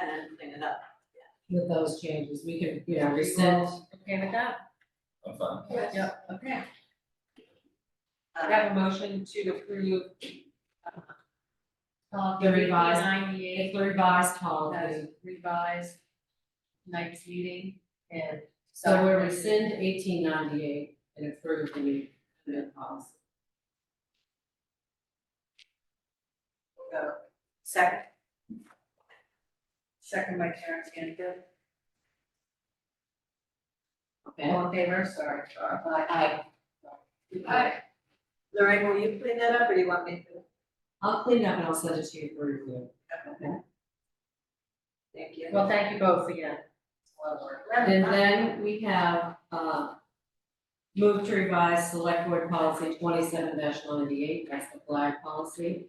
and clean it up. with those changes, we can, you know, Are you rescind. all Okay with that? I'm fine. Yep. Okay. Um, I have a motion to approve. uh, The Policy revised- If ninety-eight, the revised policy, as revised night's meeting and. so we rescind eighteen ninety-eight and approve the new, the new policy. go. Second, Second by Karen Canfield. Okay, All in favor, sorry. Aye. Aye. Lorraine, will you clean that up or do you want me to? I'll clean it up and I'll send it to you for review. Thank you. Well, thank you both again. It's a lot of work. And then we have, uh, move to revise select board policy twenty-seven ninety-eight, that's the flag policy.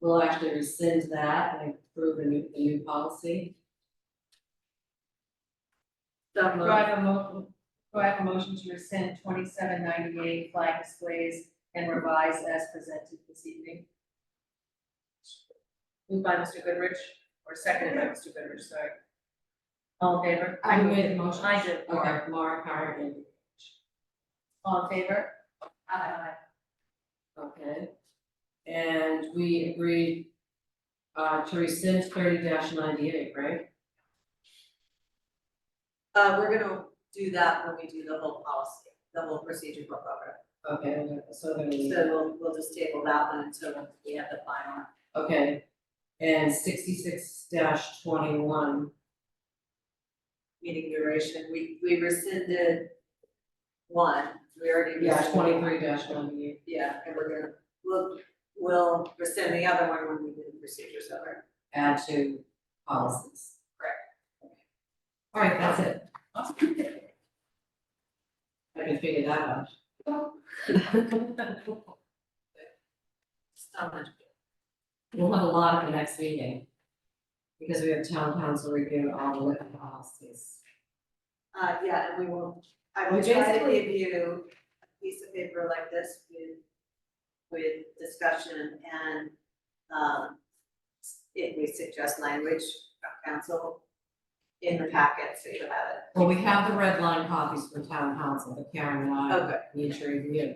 We'll actually rescind that and approve a new, a new policy. So Do moved. I have a mo- do I have a motion to rescind twenty-seven ninety-eight flag displays and revise as presented this evening? Moved by Mr. Goodrich, or seconded by Mr. Goodrich, sorry. All in favor? Who made the motion? I did, Okay, Mark, Howard, All in favor? Aye. Okay. And we agreed uh to rescind thirty ninety-eight, right? Uh, we're gonna do that when we do the whole policy, the whole procedure book over. Okay, so then we, So we'll, we'll just table that one until we have the final. okay. And sixty-six twenty-one, meeting duration, we, we rescinded one, we already. yeah, rescinded twenty-three one. ninety-eight. Yeah, and we're gonna, we'll, we'll rescind the other one when we do the procedures over. Add to policies. Correct. All right, that's it. I can figure that out. So much. We'll have a lot at the next meeting. Because we have town council review all the written policies. Uh, yeah, and we will, I will We try to basically- give you a piece of paper like this with, with discussion and, um, if we suggest language from council in the packet, so you have it. Well, we have the red line copies for town council, but Karen and I Okay, need to review.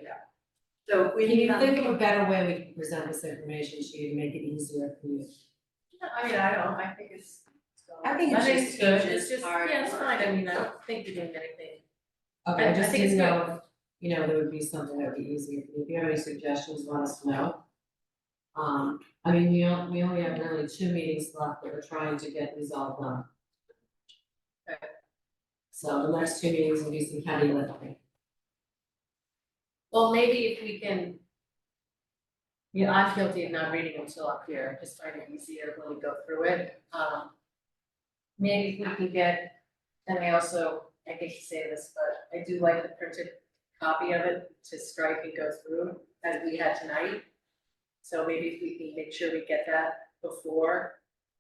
so if we Can you um, think of a better way we can present this information to you to make it easier for you? I mean, I don't, I think it's. I think it's just good, teaches it's just, hard yeah, it's work. fine, I mean, I don't think you're doing anything. Okay, I- I I just think it's didn't know, if, you know, there would be something that would be easier for you, if you have any suggestions, let us know. Um, I mean, we only, we only have really two meetings left that we're trying to get these all done. So the next two meetings will be some heavy lifting. Well, maybe if we can. You know, I'm guilty of not reading until up here, just find it easier when we go through it, um. Maybe if we can get, and I also, I hate to say this, but I do like the printed copy of it to strike and go through as we had tonight. So maybe if we can make sure we get that before,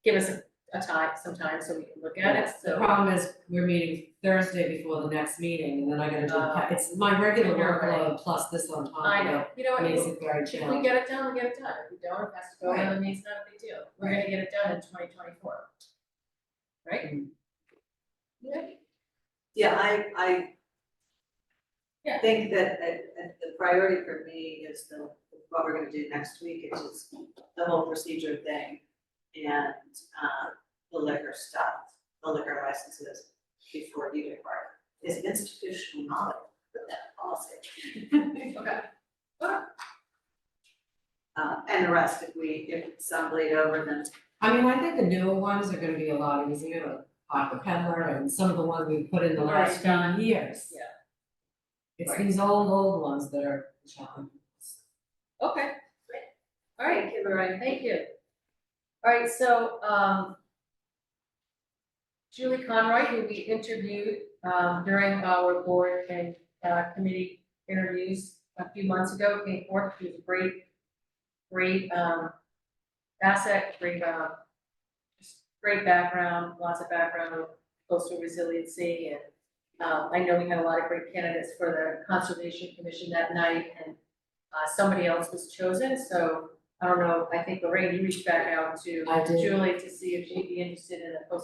give us a, a time, some time so we can look at it, The so. problem is, we're meeting Thursday before the next meeting, and then I gotta do, Uh, it's my regular you're right. workload plus this on top of it. I know, you know what, Makes you- it very If we challenging. get it done, we get it done, if we don't, it has to go, and it means not a big deal, we're gonna get it done in twenty twenty-four. Right? Yeah. Yeah, I, I Yeah. think that, that, that the priority for me is the, what we're gonna do next week, is just the whole procedure thing. And, uh, the liquor stuff, the liquor licenses before you depart, is institutional knowledge of that policy. Okay. Uh, and the rest, if we, if some bleed over, then I mean, I think the newer ones are gonna be a lot easier, like Aqua Peddler and some of the ones we put in the last few Right. years. Yeah. It's Right. these old, old ones that are challenging. Okay, great, all right, thank you, Lorraine, thank you. All right, so, um, Julie Conroy, who we interviewed, um, during our board and, uh, committee interviews a few months ago, came forth, she was a great, great, um, asset, great, um, just great background, lots of background of coastal resiliency and, um, I know we had a lot of great candidates for the Conservation Commission that night and uh, somebody else was chosen, so I don't know, I think Lorraine, you reached back out to I did. Julie to see if she'd be interested in a post